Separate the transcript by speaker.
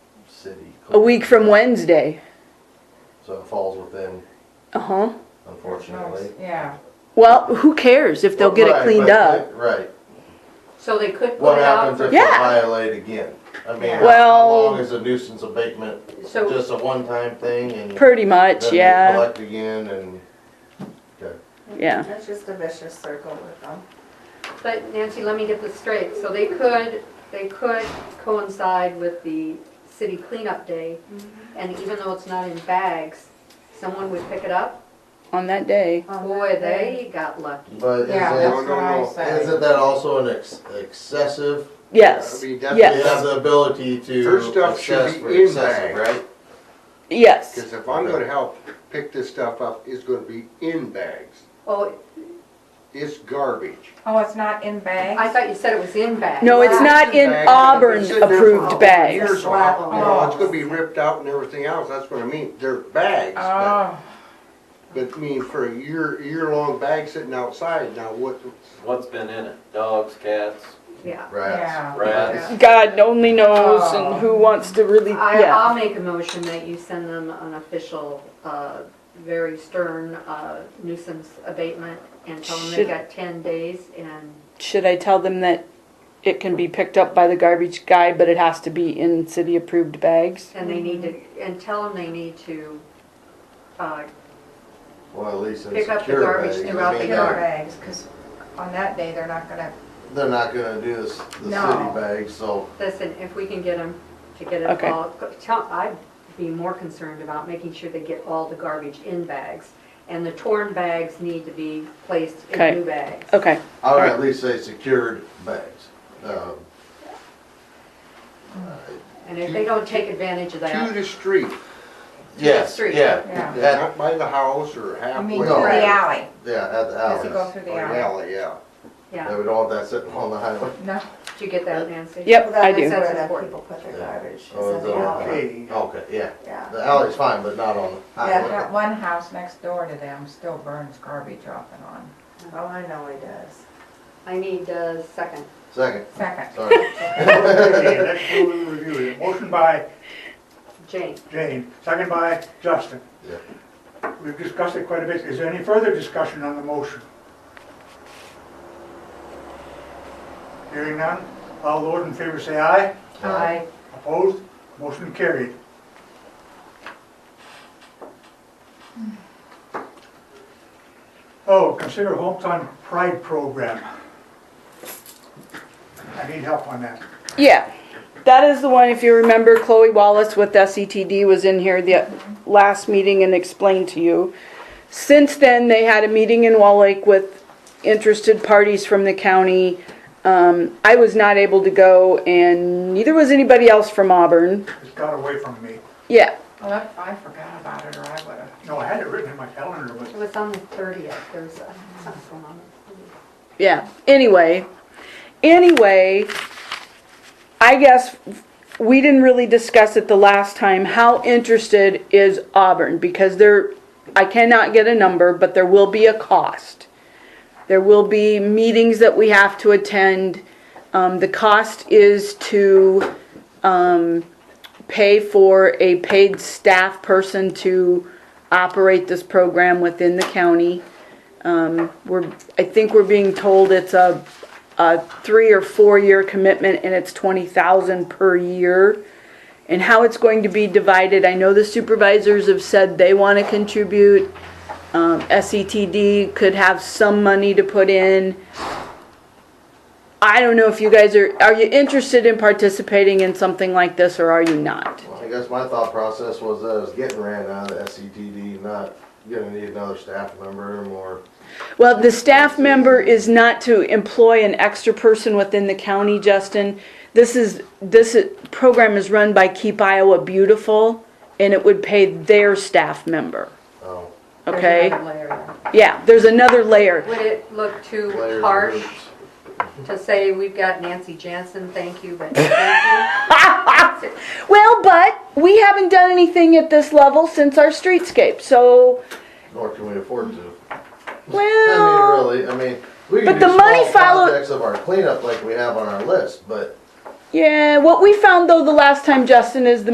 Speaker 1: city.
Speaker 2: A week from Wednesday.
Speaker 1: So it falls within,
Speaker 2: Uh huh.
Speaker 1: unfortunately.
Speaker 3: Yeah,
Speaker 2: Well, who cares if they'll get
Speaker 1: Right,
Speaker 2: it cleaned
Speaker 1: but-
Speaker 2: up?
Speaker 1: Right.
Speaker 3: so they could put
Speaker 1: What
Speaker 3: it out,
Speaker 1: happens if
Speaker 3: for-
Speaker 1: they
Speaker 2: Yeah.
Speaker 1: violate again? I mean, how
Speaker 2: Well-
Speaker 1: long is a nuisance abatement?
Speaker 3: so,
Speaker 1: Just a one-time thing and then
Speaker 2: Pretty much,
Speaker 1: you
Speaker 2: yeah.
Speaker 1: collect again and, okay.
Speaker 2: Yeah.
Speaker 4: It's just a vicious circle with them.
Speaker 3: but Nancy, let me get this straight, so they could, they could coincide with the city cleanup day, and even though it's not in bags, someone would pick it up,
Speaker 2: On that day.
Speaker 4: Oh,
Speaker 3: boy, they got lucky.
Speaker 1: But is
Speaker 4: Yeah,
Speaker 1: it,
Speaker 4: that's what I say.
Speaker 1: isn't that also an ex- excessive?
Speaker 2: Yes.
Speaker 5: I mean, that's-
Speaker 1: They have
Speaker 2: Yes.
Speaker 1: the ability to
Speaker 5: Her stuff should
Speaker 1: assess
Speaker 5: be
Speaker 1: for
Speaker 5: in
Speaker 1: excessive,
Speaker 5: bag.
Speaker 1: right?
Speaker 2: Yes.
Speaker 5: Cause if I'm gonna help pick this stuff up, it's gonna be in bags.
Speaker 3: Oh,
Speaker 5: It's garbage.
Speaker 4: Oh, it's not in
Speaker 3: I
Speaker 4: bags?
Speaker 3: thought you said it was in bags. Oh,
Speaker 2: No, it's not in
Speaker 5: Bags,
Speaker 2: Auburn
Speaker 5: they've been sitting there for
Speaker 2: approved bags.
Speaker 5: Years, well, you
Speaker 1: Oh,
Speaker 5: know, it's gonna be ripped out and everything else, that's what I mean, they're bags,
Speaker 2: Ah.
Speaker 5: but,
Speaker 4: Oh,
Speaker 5: but I mean, for a year, year-long bag sitting outside, now what,
Speaker 6: What's been in it? Dogs, cats,
Speaker 3: Yeah.
Speaker 1: Rats.
Speaker 4: yeah.
Speaker 6: rats?
Speaker 2: God only knows
Speaker 1: Oh.
Speaker 2: and who wants to really.
Speaker 3: I,
Speaker 2: Yeah.
Speaker 3: I'll make a motion that you send them an official, uh, very stern uh, nuisance abatement and tell them they
Speaker 2: Should-
Speaker 3: got ten days and,
Speaker 2: Should I tell them that it can be picked up by the garbage guy, but it has to be in city approved bags?
Speaker 3: and they need to, and tell them they need to, uh,
Speaker 1: Well, at least in
Speaker 3: Pick up the
Speaker 1: secure
Speaker 3: garbage
Speaker 1: bags. I
Speaker 3: throughout
Speaker 1: mean,
Speaker 3: the
Speaker 1: they're-
Speaker 3: yard.
Speaker 4: Killer bags, because on that day, they're not gonna,
Speaker 1: They're not gonna do this, the city
Speaker 4: No.
Speaker 1: bags, so,
Speaker 3: listen, if we can get them to get it
Speaker 2: Okay.
Speaker 3: all. Tell, I'd be more concerned about making sure they get all the garbage in bags. And the torn bags need to be placed
Speaker 2: Okay. Oh.
Speaker 3: in new bags.
Speaker 2: Okay.
Speaker 1: I would
Speaker 2: Alright.
Speaker 1: at least say secured bags. Um,
Speaker 3: And if they don't take advantage of
Speaker 5: to
Speaker 3: that,
Speaker 5: the street,
Speaker 1: Yes,
Speaker 3: street.
Speaker 1: yeah,
Speaker 4: yeah.
Speaker 1: That-
Speaker 5: not by the house or
Speaker 4: You
Speaker 5: halfway.
Speaker 4: mean through
Speaker 1: No.
Speaker 4: the alley?
Speaker 1: yeah, at the
Speaker 4: Does it go
Speaker 1: outlets.
Speaker 4: through the
Speaker 5: Or
Speaker 4: alley?
Speaker 5: alley, yeah.
Speaker 1: They
Speaker 3: yeah,
Speaker 1: would all have that sitting on the highway.
Speaker 4: No.
Speaker 3: did you get that, Nancy?
Speaker 2: Yep, I do.
Speaker 3: That's
Speaker 4: Where the
Speaker 3: important.
Speaker 4: people put their
Speaker 1: Yeah.
Speaker 4: garbage, is
Speaker 1: Oh,
Speaker 4: in
Speaker 1: is
Speaker 4: the
Speaker 1: it on
Speaker 4: alley.
Speaker 1: the- Okay, yeah.
Speaker 4: Yeah.
Speaker 1: The alley's fine, but not on the
Speaker 4: Yeah, that
Speaker 1: highway.
Speaker 4: one house next door to them still burns garbage off and on. Oh, I know he does.
Speaker 3: I need a second.
Speaker 1: Second,
Speaker 4: Second.
Speaker 1: sorry.
Speaker 7: Okay, let's do a review. Motion by
Speaker 3: Jane,
Speaker 7: Jane, second by Justin.
Speaker 1: Yeah.
Speaker 7: We've discussed it quite a bit. Is there any further discussion on the motion? Hearing none, all those in favor say aye.
Speaker 3: I,
Speaker 7: Opposed? Motion carried. Oh, consider hometown pride program. I need help on that.
Speaker 2: Yeah, that is the one, if you remember, Chloe Wallace with SETD was in here the last meeting and explained to you. Since then, they had a meeting in Wall Lake with interested parties from the county. Um, I was not able to go and neither was anybody else from Auburn.
Speaker 7: It's got away from me.
Speaker 2: Yeah,
Speaker 4: Well, that- I forgot about it, or I would've.
Speaker 7: No, I had it written in my calendar, but
Speaker 3: it was on the thirtieth, there was uh, something going on.
Speaker 2: yeah, anyway, anyway, I guess we didn't really discuss it the last time, how interested is Auburn? Because there, I cannot get a number, but there will be a cost. There will be meetings that we have to attend. Um, the cost is to, um, pay for a paid staff person to operate this program within the county. Um, we're, I think we're being told it's a, a three or four-year commitment and it's twenty thousand per year. And how it's going to be divided, I know the supervisors have said they wanna contribute. Um, SETD could have some money to put in. I don't know if you guys are, are you interested in participating in something like this or are you not?
Speaker 1: Well, I guess my thought process was that I was getting ran out of the SCTD, not gonna need another staff member or more.
Speaker 2: Well, the staff member is not to employ an extra person within the county, Justin. This is, this i- program is run by Keep Iowa Beautiful, and it would pay their staff member,
Speaker 1: Oh,
Speaker 3: There's
Speaker 2: okay?
Speaker 3: another layer there.
Speaker 2: Yeah, there's another layer.
Speaker 3: Would it look too
Speaker 1: layers of
Speaker 3: harsh
Speaker 1: groups.
Speaker 3: to say we've got Nancy Jansen, thank you, but thank you?
Speaker 2: Well, but we haven't done anything at this level since our streetscape, so,
Speaker 1: Nor can we afford to. I
Speaker 2: well,
Speaker 1: mean, really, I mean, we
Speaker 2: But
Speaker 1: can
Speaker 2: the
Speaker 1: do
Speaker 2: money
Speaker 1: small
Speaker 2: follow-
Speaker 1: projects of our cleanup like we have on our list, but
Speaker 2: yeah, what we found though the last time, Justin, is the